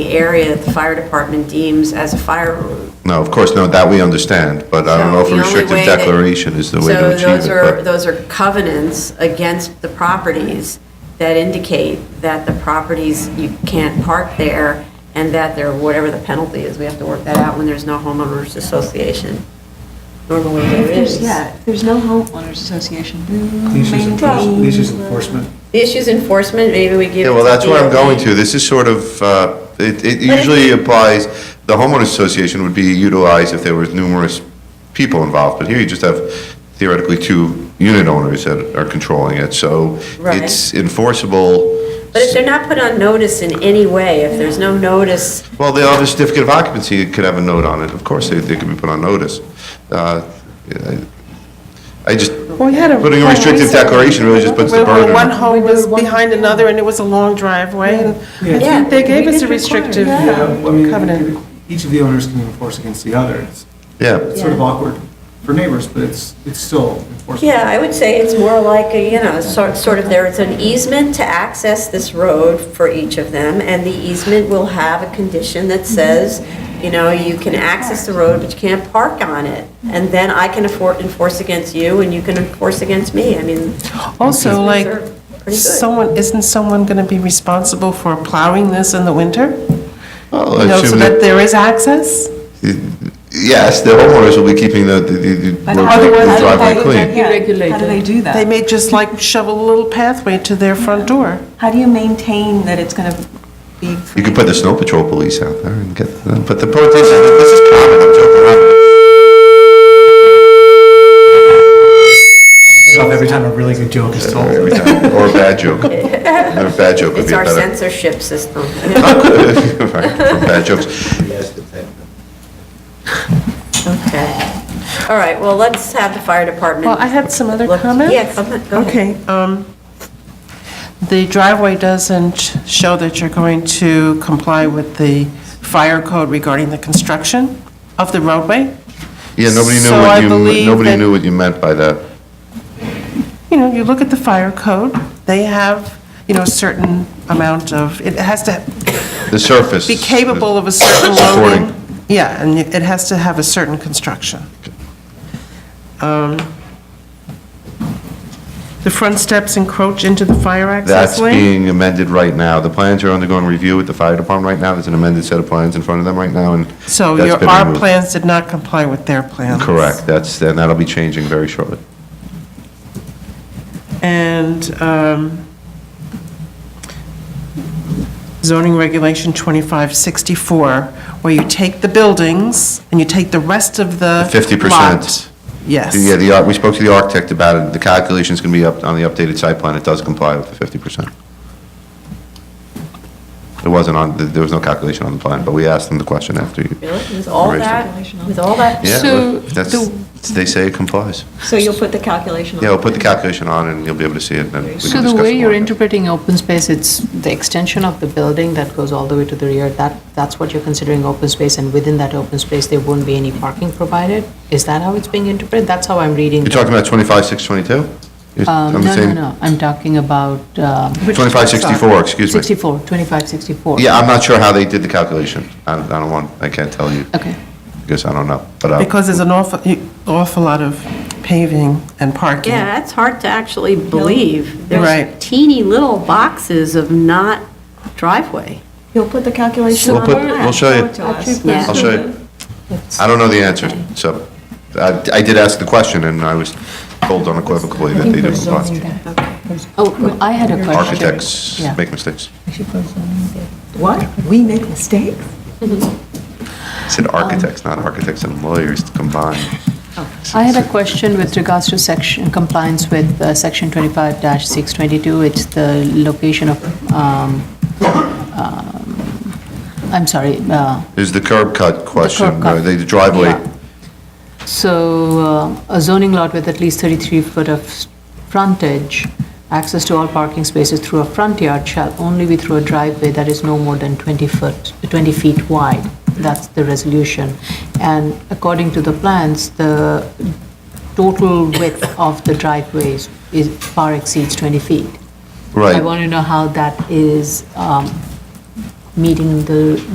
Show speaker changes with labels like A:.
A: the area that the fire department deems as a fire room.
B: No, of course, no, that we understand, but I don't know if
A: So
B: a
A: the only
B: restrictive
A: way that-
B: declaration is the way to
A: So those
B: achieve
A: are,
B: it, but
A: those are covenants against the properties that indicate that the properties, you can't park there, and that there, whatever the penalty is, we have to work that out when there's no homeowners association. Normally
C: If
A: there
C: there's,
A: is.
C: yeah, if there's no homeowners association, who
D: Leases enforcement,
C: maintains?
D: leases
C: the-
D: enforcement.
A: The issue's enforcement, maybe we give
B: Yeah, well, that's where I'm going
A: DOT.
B: to. This is sort of, uh, it it
A: if
B: usually
A: you-
B: applies, the homeowners association would be utilized if there was numerous people involved, but here you just have theoretically two unit owners that are controlling it, so
A: Right.
B: it's enforceable.
A: But if they're not put on notice in any way, if there's no notice,
B: Well, they have a certificate of occupancy, it could have a note on it. Of course, they, they could be put on notice. Uh, I I just,
E: Well, we had a.
B: putting a restrictive declaration really just puts the
E: Well,
B: burden on.
E: One home was behind another, and it was a long driveway, and I
A: Yeah.
E: think they gave us
C: We
E: a
C: did require,
E: restrictive
C: yeah.
D: Yeah, I mean,
E: covenant.
D: Each of the owners can enforce against the other. It's
B: Yeah,
D: it's sort of awkward for neighbors, but it's, it's still enforceable.
A: yeah, I would say it's more like, a, you know, sort sort of there, it's an easement to access this road for each of them, and the easement will have a condition that
E: Mm-hmm.
A: says, you know, you can access the road, but you can't park on it. And
E: Mm-hmm.
A: then I can afford, enforce against you, and you can enforce against me. I mean,
E: Also, like,
A: are pretty good.
E: someone, isn't someone going to be responsible for plowing this in the winter?
B: Well,
E: You
B: I
E: know,
B: assume
E: so
B: that-
E: that there is access?
B: Yes, the homeowners will be keeping the, the- the- the
C: But
B: road-
C: how do
B: the
C: they-
B: driveway
C: how do
B: clean.
C: they- yeah, How do they do
E: They
C: that?
E: may just like shovel a little pathway to their front door.
C: How do you maintain that it's going to be?
B: You could put the snow patrol police out there and get them, but the point is, this is common, I'm joking around.
D: Stop every time a really good joke is told.
B: Every time, Or a bad joke. Or a bad joke would
A: It's
B: be
A: our
B: better.
A: censorship system.
B: Right, or Bad jokes.
A: Okay. All right, well, let's have the fire department.
E: Well, I had some other
A: look-
E: comments.
A: Yeah, comment- go ahead.
E: Okay, um, the driveway doesn't show that you're going to comply with the fire code regarding the construction of the roadway.
B: Yeah, nobody knew
E: So I
B: what you,
E: believe
B: nobody
E: that-
B: knew what you meant by that.
E: You know, you look at the fire code, they have, you know, a certain amount of, it has to
B: The surface.
E: be capable of a certain
B: Supporting.
E: loading. Yeah, and it has to have a certain construction. Um, The front steps encroach into the fire access
B: That's
E: lane.
B: being amended right now. The plans are undergoing review with the fire department right now. There's an amended set of plans in front of them right now, and
E: So
B: that's
E: your,
B: been
E: our
B: removed.
E: plans did not comply with their plans?
B: Correct, that's, and that'll be changing very shortly.
E: And um, zoning regulation 2564, where you take the buildings and you take the rest of the
B: 50%.
E: lot. Yes.
B: Yeah, the, ar- we spoke to the architect about it, the calculation's can be up, on the updated site plan, it does comply with the 50%. It wasn't on, th- there was no calculation on the plan, but we asked them the question after you.
A: Really? With all
B: Raised it.
A: that, with all that?
B: Yeah,
C: So
B: look, that's,
C: the-
B: they say it complies.
C: So you'll put the calculation on?
B: Yeah, we'll put the calculation on and you'll be able to see it, and then we can discuss
F: So
B: it.
F: the way you're
B: more.
F: interpreting open space, it's the extension of the building that goes all the way to the rear, that, that's what you're considering open space, and within that open space, there won't be any parking provided? Is that how it's being interpreted? That's how I'm reading.
B: You're
F: the-
B: talking about 25, 622? You're-
F: Um,
B: I'm
F: No, no,
B: saying-
F: no, I'm talking about. um,
B: 2564, excuse me.
F: 64, 2564.
B: Yeah, I'm not sure how they did the calculation. I I don't want, I can't tell you,
F: Okay.
B: because I don't know, but. uh,
E: Because there's an awful, awful lot of paving and parking.
A: Yeah, that's hard to actually believe. There's
E: Right.
A: teeny little boxes of not driveway.
C: You'll put the calculation
B: We'll
C: on?
B: put, we'll show you.
C: To us.
A: Yeah.
B: I'll show you. I don't know the answer, so I I did ask the question, and I was told unequivocally that they do comply.
F: Oh, I had a question.
B: Architects
F: Yeah.
B: make mistakes.
C: What? We make mistakes?
B: I said architects, not architects and lawyers combined.
F: I had a question with regards to section, compliance with uh, section 25-622. It's the location of, um, um, I'm sorry, uh,
B: There's the curb cut question,
F: cut.
B: or the driveway.
F: Yeah. so uh, a zoning lot with at least 33 foot of s- frontage, access to all parking spaces through a front yard shall only be through a driveway that is no more than 20 foot, 20 feet wide. That's the resolution. And according to the plans, the total width of the driveways is, far exceeds 20 feet. I
B: Right.
F: want to know how that is um, meeting the